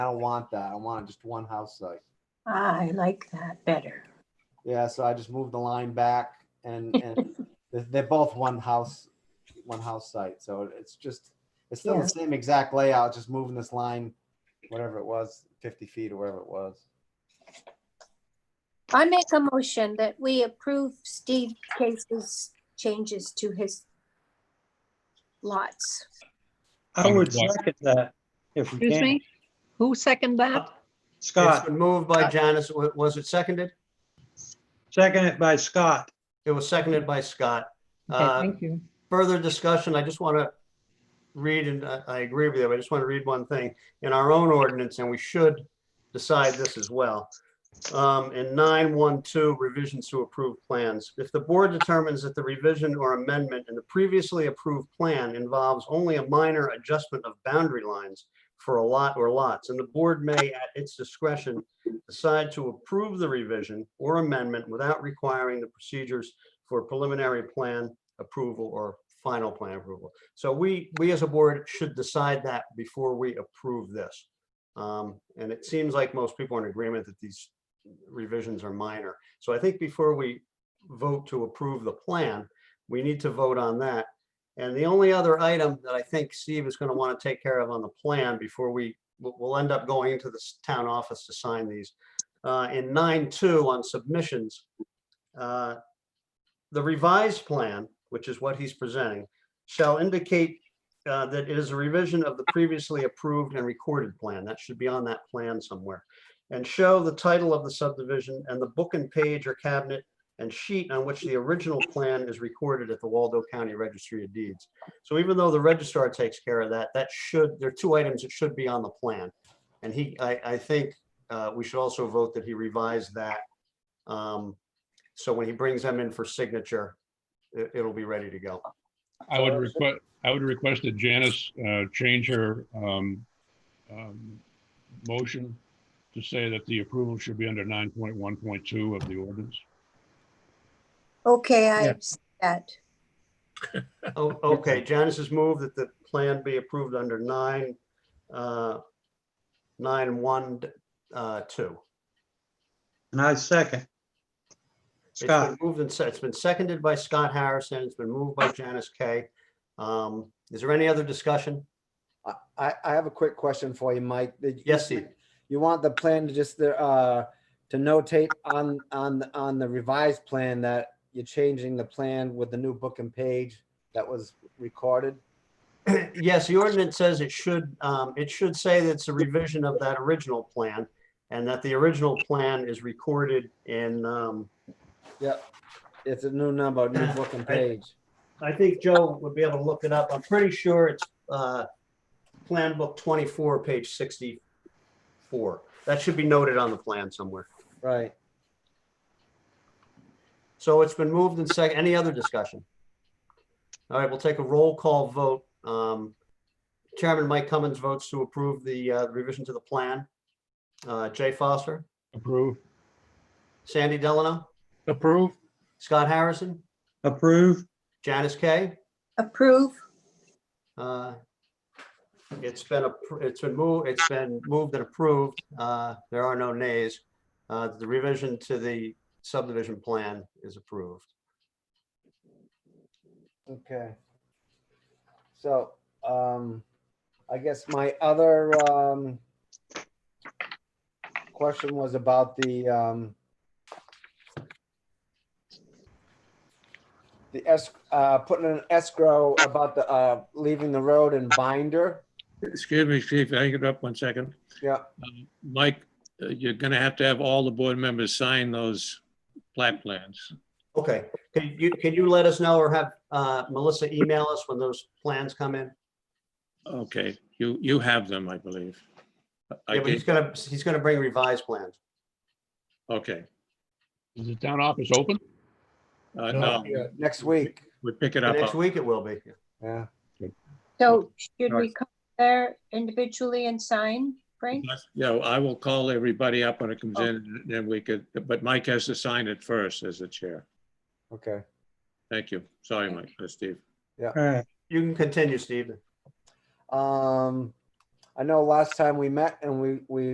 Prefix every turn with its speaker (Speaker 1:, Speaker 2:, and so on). Speaker 1: I don't want that. I want just one house site.
Speaker 2: I like that better.
Speaker 1: Yeah, so I just moved the line back and, and they're, they're both one house, one house site. So it's just, it's still
Speaker 2: Yeah.
Speaker 1: the same exact layout, just moving this line, whatever it was, 50 feet or whatever it was.
Speaker 2: I make a motion that we approve Steve Case's changes to his lots.
Speaker 3: I would
Speaker 4: Yeah.
Speaker 3: second that if we
Speaker 5: Excuse
Speaker 3: can.
Speaker 5: me? Who seconded that?
Speaker 6: It's
Speaker 3: Scott,
Speaker 6: been moved by Janice. Wa- Was it seconded?
Speaker 3: second it by Scott.
Speaker 6: It was seconded by Scott.
Speaker 5: Okay,
Speaker 6: Uh,
Speaker 5: thank you.
Speaker 6: Further discussion, I just want to read, and I I agree with you, but I just want to read one thing. In our own ordinance, and we should decide this as well. Um, In 912 revisions to approved plans, if the board determines that the revision or amendment in the previously approved plan involves only a minor adjustment of boundary lines for a lot or lots, and the board may, at its discretion, decide to approve the revision or amendment without requiring the procedures for preliminary plan approval or final plan approval. So we, we as a board should decide that before we approve this. Um, And it seems like most people are in agreement that these revisions are minor. So I think before we vote to approve the plan, we need to vote on that. And the only other item that I think Steve is going to want to take care of on the plan before we, we'll we'll end up going into the s- town office to sign these. Uh, In nine two on submissions, uh, the revised plan, which is what he's presenting, shall indicate uh, that it is a revision of the previously approved and recorded plan. That should be on that plan somewhere. And show the title of the subdivision and the book and page or cabinet and sheet on which the original plan is recorded at the Waldo County Registry of Deeds. So even though the registrar takes care of that, that should, there are two items that should be on the plan. And he, I, I think uh, we should also vote that he revised that um, so when he brings them in for signature, it, it'll be ready to go.
Speaker 4: I would request, I would request that Janice uh, change her um, um, motion to say that the approval should be under 9.1.2 of the ordinance.
Speaker 2: Okay, I see that.
Speaker 6: Oh, okay, Janice has moved that the plan be approved under nine, uh, nine, one, uh, two.
Speaker 3: And I second.
Speaker 6: It's been
Speaker 3: Scott,
Speaker 6: moved and, se- it's been seconded by Scott Harrison, it's been moved by Janice Kay. Um, is there any other discussion?
Speaker 1: I, I, I have a quick question for you, Mike. Did you-
Speaker 6: Yes, Steve.
Speaker 1: You want the plan to just, uh, to notate on, on, on the revised plan that you're changing the plan with the new book and page that was recorded?
Speaker 6: Yes, the ordinance says it should, um, it should say that it's a revision of that original plan and that the original plan is recorded in, um,
Speaker 1: Yep. It's a new number, new book and page.
Speaker 6: I think Joe would be able to look it up. I'm pretty sure it's uh, Plan Book 24, page 64. That should be noted on the plan somewhere.
Speaker 1: Right.
Speaker 6: So it's been moved and second. Any other discussion? All right, we'll take a roll call vote. Um, Chairman Mike Cummins votes to approve the uh, revision to the plan. Uh, Jay Foster,
Speaker 4: Approve?
Speaker 6: Sandy Delano,
Speaker 3: approve,
Speaker 6: Scott Harrison,
Speaker 3: approve,
Speaker 6: Janice Kay.
Speaker 2: Approve?
Speaker 6: Uh, It's been, appro- it's been moved, it's been moved and approved. Uh, There are no nays. Uh, The revision to the subdivision plan is approved.
Speaker 1: Okay. So, um, I guess my other, um, question was about the, um, the es, uh, putting an escrow about the, uh, leaving the road and binder.
Speaker 7: Excuse me, Chief, hang it up one second.
Speaker 1: Yeah.
Speaker 7: Um, Mike, uh, you're gonna have to have all the board members sign those plat plans.
Speaker 6: Okay, can you, can you let us know or have uh, Melissa email us when those plans come in?
Speaker 7: Okay, you, you have them, I believe. I
Speaker 6: Yeah, but he's
Speaker 7: gave,
Speaker 6: gonna, he's gonna bring revised plans.
Speaker 7: okay,
Speaker 4: Is the town office open?
Speaker 7: uh,
Speaker 3: No.
Speaker 7: no,
Speaker 1: Next week.
Speaker 7: we pick it up.
Speaker 6: Next week it will be.
Speaker 1: Yeah.
Speaker 2: So should we come there individually and sign, Frank?
Speaker 7: Uh, Yeah, I will call everybody up when it
Speaker 6: Oh.
Speaker 7: comes in, and then we could, but Mike has to sign it first as the chair.
Speaker 1: Okay.
Speaker 7: Thank you. Sorry, Mike, Uh, Steve.
Speaker 3: all right.
Speaker 6: You can continue, Steve.
Speaker 1: Um, I know last time we met and we, we